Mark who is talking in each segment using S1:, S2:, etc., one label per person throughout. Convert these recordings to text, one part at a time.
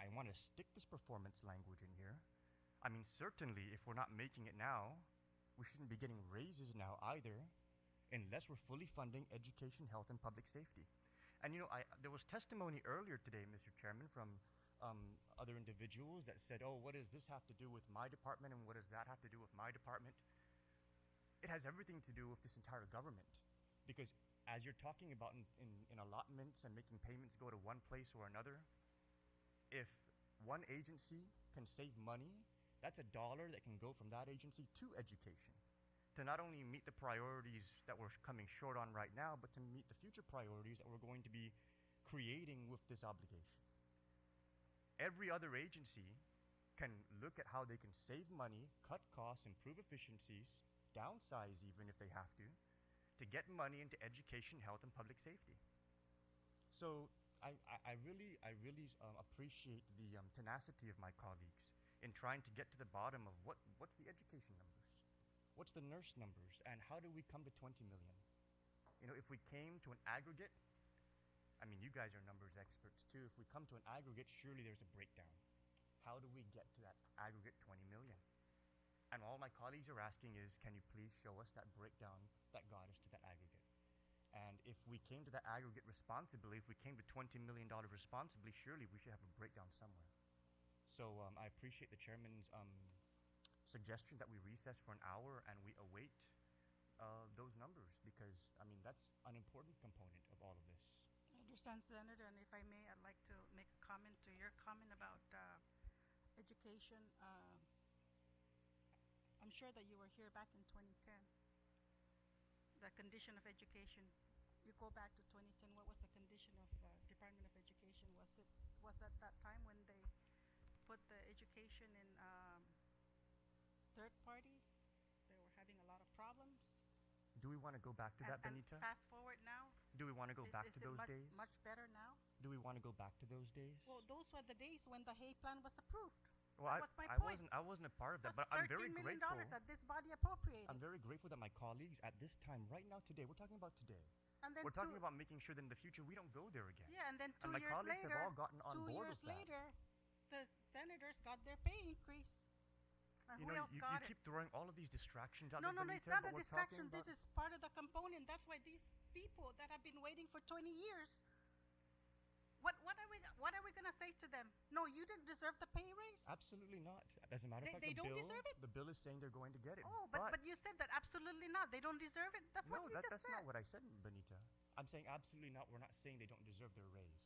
S1: to stick this performance language in here. I mean, certainly, if we're not making it now, we shouldn't be getting raises now either, unless we're fully funding education, health, and public safety. And you know, I, there was testimony earlier today, Mr. Chairman, from um, other individuals that said, "Oh, what does this have to do with my department, and what does that have to do with my department?" It has everything to do with this entire government, because as you're talking about in, in, in allotments and making payments go to one place or another, if one agency can save money, that's a dollar that can go from that agency to education to not only meet the priorities that we're coming short on right now, but to meet the future priorities that we're going to be creating with this obligation. Every other agency can look at how they can save money, cut costs, improve efficiencies, downsize even if they have to, to get money into education, health, and public safety. So I, I, I really, I really um, appreciate the um, tenacity of my colleagues in trying to get to the bottom of what, what's the education numbers, what's the nurse numbers, and how do we come to 20 million? You know, if we came to an aggregate, I mean, you guys are numbers experts too. If we come to an aggregate, surely there's a breakdown. How do we get to that aggregate 20 million? And all my colleagues are asking is, can you please show us that breakdown that got us to that aggregate? And if we came to that aggregate responsibly, if we came to $20 million responsibly, surely we should have a breakdown somewhere. So um, I appreciate the chairman's um, suggestion that we recess for an hour and we await uh, those numbers because, I mean, that's an important component of all of this.
S2: I understand, Senator, and if I may, I'd like to make a comment to your comment about uh, education. Uh, I'm sure that you were here back in 2010. The condition of education, you go back to 2010, what was the condition of uh, Department of Education? Was it, was that that time when they put the education in um, third party? They were having a lot of problems?
S1: Do we want to go back to
S2: And-
S1: that,
S2: and
S1: Benita?
S2: Fast forward now?
S1: Do we want to go
S2: is-
S1: back
S2: um,
S1: to
S2: is it
S1: those
S2: much-
S1: days?
S2: Much better now?
S1: Do we want to go back to those days?
S2: Well, those were the days when the Hay Plan was approved.
S1: Well, I,
S2: that was my
S1: I
S2: point.
S1: wasn't. I wasn't a part of that,
S2: That's
S1: but I'm very
S2: $13 million
S1: grateful.
S2: that this body appropriated.
S1: I'm very grateful that my colleagues at this time, right now, today, we're talking about today.
S2: and then
S1: We're talking
S2: two,
S1: about making sure that in the future we don't go there again.
S2: yeah, and then two
S1: my
S2: years
S1: colleagues have
S2: later,
S1: all gotten on
S2: two
S1: board
S2: years
S1: with that.
S2: later, the senators got their pay increase. And
S1: you
S2: who
S1: know,
S2: else
S1: you,
S2: got
S1: you
S2: it?
S1: keep throwing all of these distractions out
S2: no,
S1: there,
S2: no, no,
S1: Benita,
S2: it's not
S1: but
S2: a
S1: we're talking
S2: distraction.
S1: about-
S2: This is part of the component. That's why these people that have been waiting for 20 years. What, what are we what are we gonna say to them? No, you didn't deserve the pay raise.
S1: absolutely not. As a matter of
S2: They-
S1: fact,
S2: they
S1: the
S2: don't
S1: bill,
S2: deserve it?
S1: the bill is saying they're going to get it.
S2: Oh, but, but you said that absolutely not. They don't deserve it. That's
S1: no,
S2: what you
S1: that,
S2: just
S1: that's
S2: said.
S1: not what I said, Benita. I'm saying absolutely not. We're not saying they don't deserve their raise.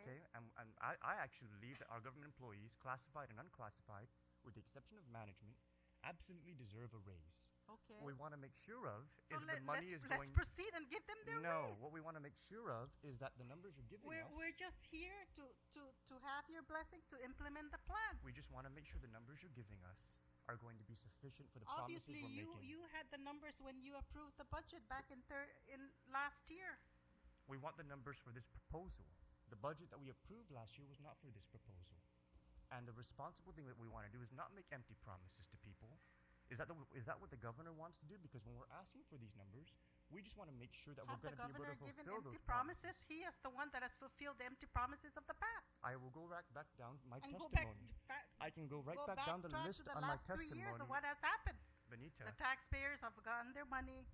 S1: Okay, and, and I, I actually believe that our government employees, classified and unclassified, with the exception of management, absolutely deserve a raise.
S2: Okay.
S1: What we want to make sure of
S2: So
S1: is that the
S2: let,
S1: money
S2: us
S1: is
S2: let's
S1: going.
S2: proceed and give them their
S1: no,
S2: raise.
S1: what we want to make sure of is that the numbers you're giving
S2: we're,
S1: us.
S2: we're just here to, to, to have your blessing to implement the plan.
S1: we just want to make sure the numbers you're giving us are going to be sufficient for the promises
S2: Obviously,
S1: we're
S2: you,
S1: making.
S2: you had the numbers when you approved the budget back in third in last year.
S1: We want the numbers for this proposal. The budget that we approved last year was not for this proposal. And the responsible thing that we want to do is not make empty promises to people. Is that, the, is that what the governor wants to do? Because when we're asking for these numbers, we just want to make sure that
S2: Have
S1: we're
S2: the
S1: going to be able
S2: governor
S1: to
S2: given
S1: fulfill
S2: empty
S1: those
S2: promises? He is the one that has fulfilled the empty promises of the past.
S1: I will go right back down my
S2: And go back,
S1: testimony.
S2: fa-
S1: I can go right
S2: go
S1: back, down the
S2: backtrack
S1: list
S2: to the
S1: on
S2: last
S1: my
S2: three
S1: testimony.
S2: years of what has happened.
S1: Benita,
S2: The taxpayers have gotten their money.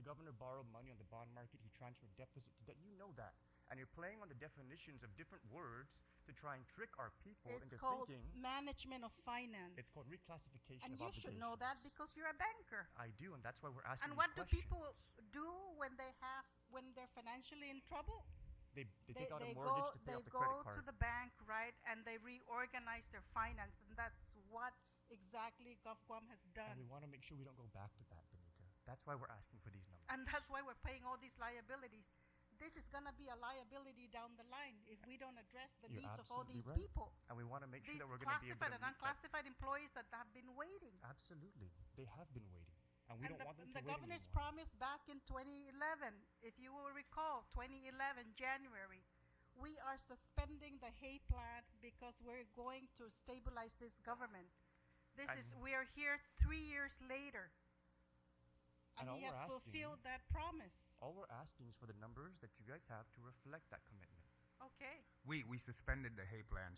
S1: The governor borrowed money on the bond market. He transferred deficit to debt. You know that. And you're playing on the definitions of different words to try and trick our people
S2: It's
S1: into
S2: called
S1: thinking
S2: management of finance.
S1: it's called reclassification of
S2: and you should know that
S1: obligations.
S2: because you're a banker.
S1: I do, and that's why we're asking.
S2: And
S1: these
S2: what do
S1: questions.
S2: people do when they have when they're financially in trouble?
S1: They, they, take out a mortgage
S2: go,
S1: to pay
S2: they
S1: off the
S2: go
S1: credit card.
S2: to the bank, right, and they reorganize their finance, and that's what exactly GovCom has
S1: and we
S2: done.
S1: want to make sure we don't go back to that, Benita. That's why we're asking for these numbers.
S2: And that's why we're paying all these liabilities. This is going to be a liability down the line if we don't address the
S1: You're
S2: needs of all
S1: absolutely right.
S2: these people.
S1: And we want to make sure
S2: These
S1: that we're going to be able to meet
S2: classified and
S1: that.
S2: unclassified employees that have been waiting.
S1: Absolutely, they have been waiting, and we
S2: and
S1: don't
S2: the,
S1: want them to
S2: and the
S1: wait
S2: governor's
S1: anymore.
S2: promise back in 2011, if you will recall, 2011 January, we are suspending the Hay Plan because we're going to stabilize this government. This is
S1: And-
S2: we are here three years later,
S1: And
S2: and,
S1: all we're
S2: he has
S1: asking-
S2: fulfilled that promise.
S1: All we're asking is for the numbers that you guys have to reflect that commitment.
S2: Okay.
S3: We, we suspended the hay plan